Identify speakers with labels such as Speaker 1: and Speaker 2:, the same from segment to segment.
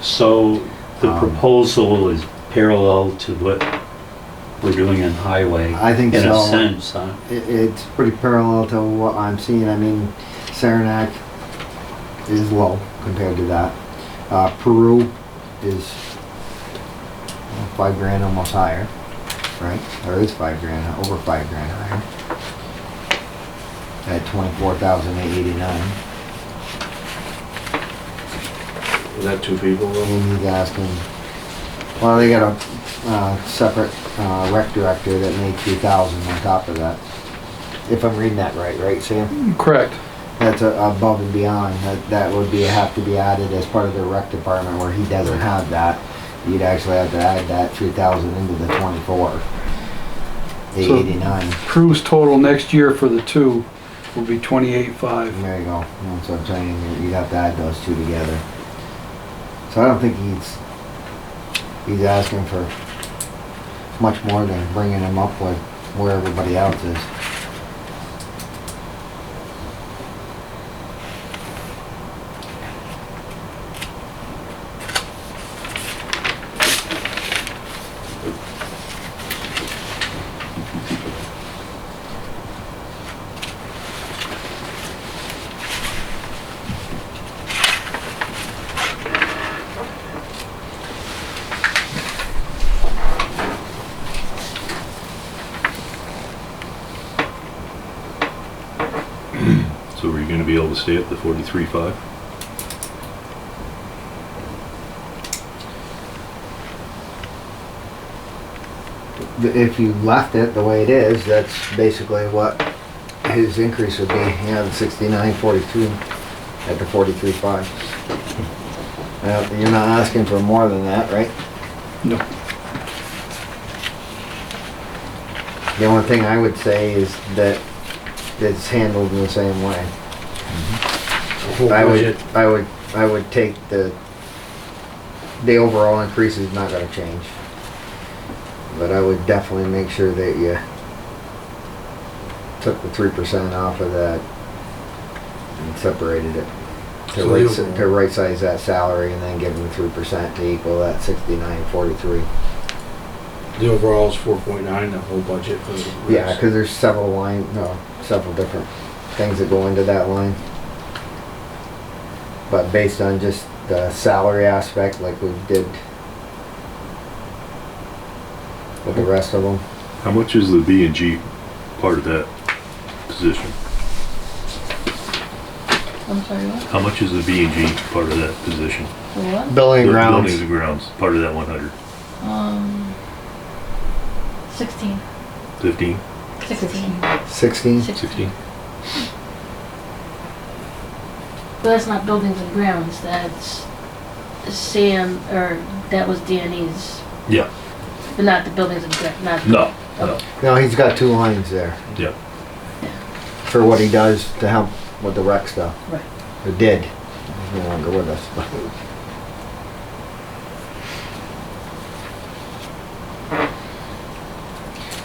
Speaker 1: So the
Speaker 2: Um,
Speaker 1: proposal is parallel to what we're doing in highway.
Speaker 2: I think
Speaker 1: In a
Speaker 2: so.
Speaker 1: sense, huh?
Speaker 2: It, it's pretty parallel to what I'm seeing. I mean, Saranac is low compared to that. Uh, Peru is five grand almost higher, right? Or is five grand, over five grand higher. At twenty-four thousand eight eighty-nine.
Speaker 3: Is that two people though?
Speaker 2: And he's asking, well, they got a, uh, separate, uh, rec director that made three thousand on top of that. If I'm reading that right, right, Sam?
Speaker 4: Correct.
Speaker 2: That's a- above and beyond, that, that would be, have to be added as part of the rec department where he doesn't have that. You'd actually have to add that three thousand into the twenty-four. Eight
Speaker 4: So-
Speaker 2: eighty-nine,
Speaker 4: Crew's total next year for the two will be twenty-eight five.
Speaker 2: there you go, that's what I'm saying, you'd have to add those two together. So I don't think he's, he's asking for much more than bringing him up with where everybody else is.
Speaker 5: So are you gonna be able to stay at the forty-three five?
Speaker 2: If you left it the way it is, that's basically what his increase would be, you know, the sixty-nine, forty-two at the forty-three five. Now, you're not asking for more than that, right?
Speaker 4: No.
Speaker 2: The only thing I would say is that it's handled in the same way. I would, I would, I would take the, the overall increase is not gonna change. But I would definitely make sure that you took the three percent off of that and separated it. To
Speaker 3: So
Speaker 2: right,
Speaker 3: the overall-
Speaker 2: to right size that salary and then give them three percent to equal that sixty-nine forty-three.
Speaker 3: The overall is four point nine, the whole budget for the.
Speaker 2: Yeah, cause there's several line, no, several different things that go into that line. But based on just the salary aspect, like we did with the rest of them,
Speaker 5: How much is the B and G part of that position?
Speaker 6: I'm sorry, what?
Speaker 5: How much is the B and G part of that position?
Speaker 6: What?
Speaker 2: building
Speaker 5: The
Speaker 2: grounds,
Speaker 5: Buildings and grounds, part of that one hundred,
Speaker 6: Um, 16.
Speaker 5: fifteen,
Speaker 6: 16.
Speaker 2: sixteen,
Speaker 6: 16.
Speaker 5: sixteen?
Speaker 6: But that's not buildings and grounds. That's Sam, or that was Danny's,
Speaker 5: Yeah,
Speaker 6: but not the buildings and grounds. Not
Speaker 5: no, no,
Speaker 2: no, he's got two lines there
Speaker 5: yeah.
Speaker 2: for what he does to help with the rec stuff.
Speaker 6: Right.
Speaker 2: Or did, he's no longer with us, but.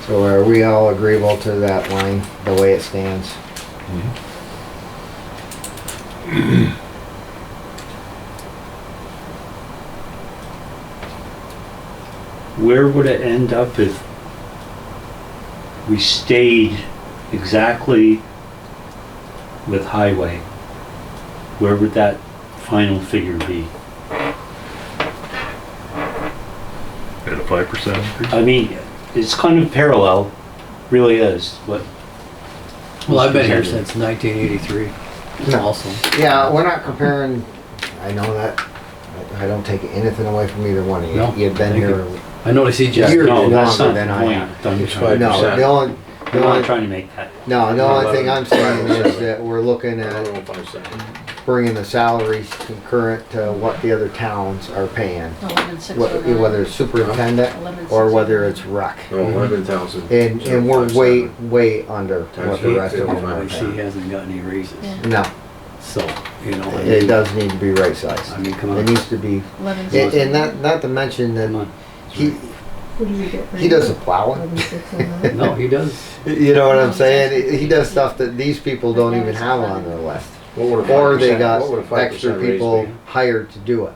Speaker 2: So are we all agreeable to that line, the way it stands? Mm-hmm.
Speaker 1: Where would it end up if we stayed exactly with highway? Where would that final figure be?
Speaker 5: At a five percent increase?
Speaker 1: I mean, it's kind of parallel, really is, what.
Speaker 7: Well, I've been here since 1983.
Speaker 2: No.
Speaker 7: Also,
Speaker 2: Yeah, we're not comparing, I know that, I I don't take anything away from either one of
Speaker 7: No,
Speaker 2: you. You've been
Speaker 7: thank
Speaker 2: here,
Speaker 7: I noticed he just
Speaker 2: You're
Speaker 1: No, that's not
Speaker 2: longer than
Speaker 1: the
Speaker 2: I am.
Speaker 1: point. I'm
Speaker 3: It's
Speaker 1: trying-
Speaker 3: five
Speaker 2: no, the
Speaker 3: percent.
Speaker 2: only,
Speaker 1: I'm
Speaker 2: the
Speaker 1: not
Speaker 2: only,
Speaker 1: trying to make that.
Speaker 2: no, the only thing I'm saying
Speaker 3: Eleven.
Speaker 2: is that we're looking at bringing the salaries concurrent to what the other towns are paying.
Speaker 6: 11, 6,
Speaker 2: Whether whether it's superintendent
Speaker 6: oh
Speaker 2: or whether it's rec.
Speaker 3: Eleven thousand.
Speaker 2: And, and we're way, way under what the rest of them are
Speaker 7: obviously he
Speaker 2: paying.
Speaker 7: hasn't got any raises.
Speaker 6: Yeah.
Speaker 2: No,
Speaker 7: So you know, I
Speaker 2: it
Speaker 7: mean,
Speaker 2: does need to be right
Speaker 7: I
Speaker 2: sized.
Speaker 7: mean, come
Speaker 2: It
Speaker 7: on,
Speaker 2: needs to be,
Speaker 6: 11,
Speaker 2: and, and not, not to mention
Speaker 7: come
Speaker 2: that
Speaker 7: on.
Speaker 2: he,
Speaker 8: What do you get? for
Speaker 2: he does the plowing.
Speaker 8: Eleven six oh nine?
Speaker 7: No, he does.
Speaker 2: You know what I'm saying? He- He does stuff that these people don't even have on their list.
Speaker 3: What would a
Speaker 2: Or they
Speaker 3: 5% what would a
Speaker 2: got
Speaker 3: 5%
Speaker 2: extra
Speaker 3: raise
Speaker 2: people
Speaker 3: be?
Speaker 2: hired to do it.